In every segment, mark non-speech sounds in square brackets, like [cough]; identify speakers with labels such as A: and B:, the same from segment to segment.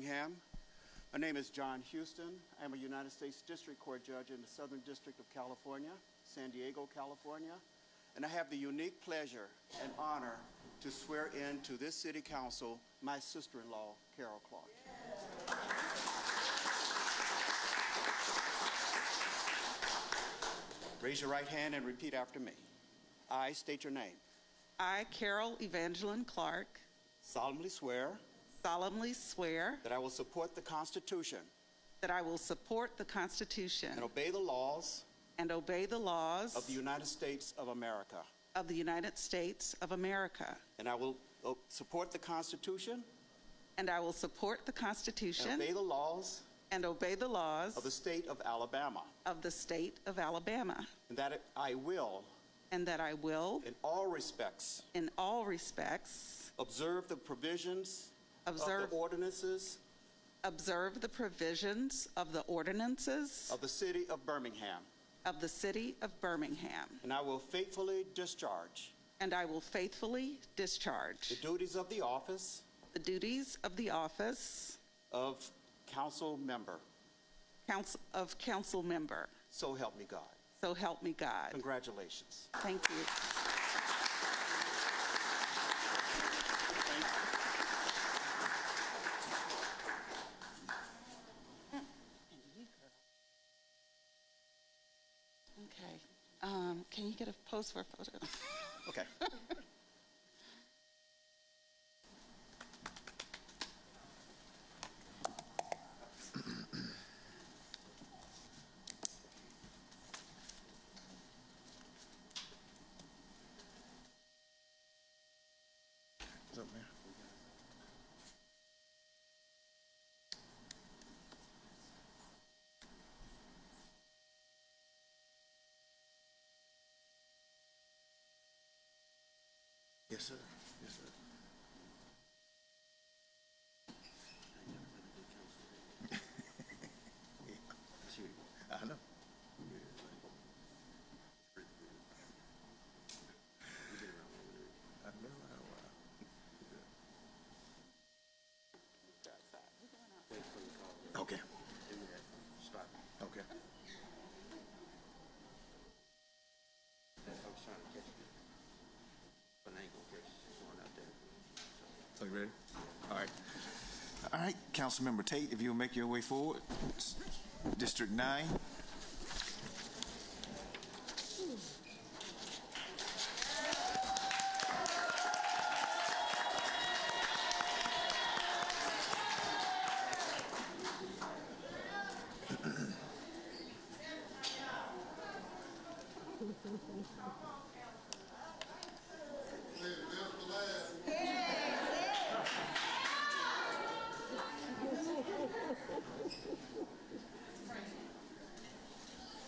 A: Graham. My name is John Houston. I'm a United States District Court Judge in the Southern District of California, San Diego, California, and I have the unique pleasure and honor to swear in to this City Council my sister-in-law, Carol Clark. Raise your right hand and repeat after me. I state your name.
B: I, Carol Evangeline Clark,
A: solemnly swear
B: solemnly swear
A: that I will support the Constitution
B: that I will support the
A: and
B: Constitution
A: obey the laws
B: and obey the
A: of the
B: laws
A: United States of America,
B: of the United States of America,
A: and I will uh, support the Constitution
B: and I will support the
A: and obey
B: Constitution
A: the laws
B: and obey the
A: of the
B: laws
A: state of Alabama,
B: of the state of Alabama,
A: and that I will,
B: and that I will,
A: in all respects,
B: in all respects,
A: observe the provisions of
B: observe,
A: the ordinances
B: observe the provisions of the ordinances
A: of the city of Birmingham,
B: of the city of Birmingham,
A: and I will faithfully discharge
B: and I will faithfully
A: the
B: discharge
A: duties of the office
B: the duties of the office
A: of council member.
B: Council, of council member.
A: So help me God.
B: So help me God.
A: Congratulations.
B: Thank you. Okay, um, can you get a pose for a photo?
A: Okay.
C: Yes, sir. Yes, sir. [laughs] I know. I've been around a while. Okay. Okay. So you ready? All right. All right, Councilmember Tate, if you'll make your way forward, District Nine.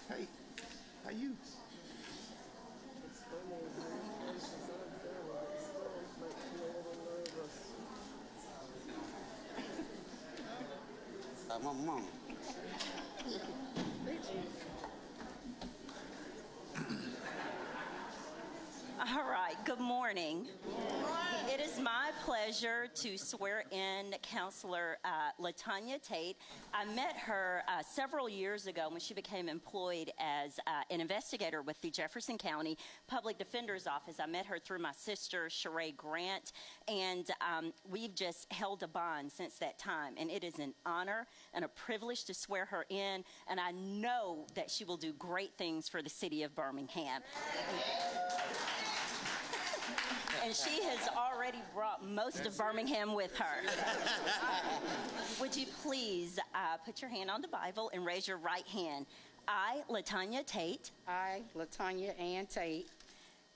C: Hey, how you?
A: Uh, my mom.
D: All right, good morning. It is my pleasure to swear in Counselor uh, Latanya Tate. I met her uh, several years ago when she became employed as uh, an investigator with the Jefferson County Public Defender's Office. I met her through my sister, Sheree Grant, and um, we've just held a bond since that time. And it is an honor and a privilege to swear her in, and I know that she will do great things for the city of Birmingham. and she has already brought most of Birmingham with her. Would you please uh, put your hand on the Bible and raise your right hand? I, Latanya Tate,
E: I, Latanya Ann Tate,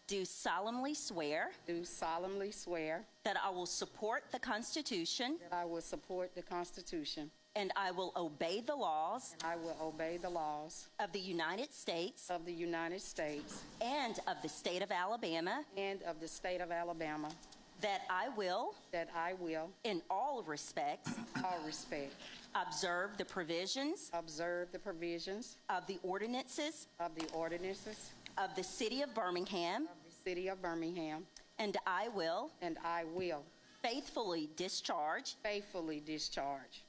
D: do solemnly swear
E: do solemnly swear
D: that I will support the Constitution
E: that I will support the Constitution.
D: and I will obey the laws
E: I will obey the laws
D: of the United States
E: of the United States
D: and of the state of Alabama,
E: and of the state of Alabama,
D: that I will,
E: that I will,
D: in all respects,
E: in all respect,
D: observe the provisions
E: observe the provisions
D: of the ordinances
E: of the ordinances
D: of the city of Birmingham,
E: of the city of Birmingham,
D: and I will.
E: and I will
D: faithfully discharge
E: faithfully discharge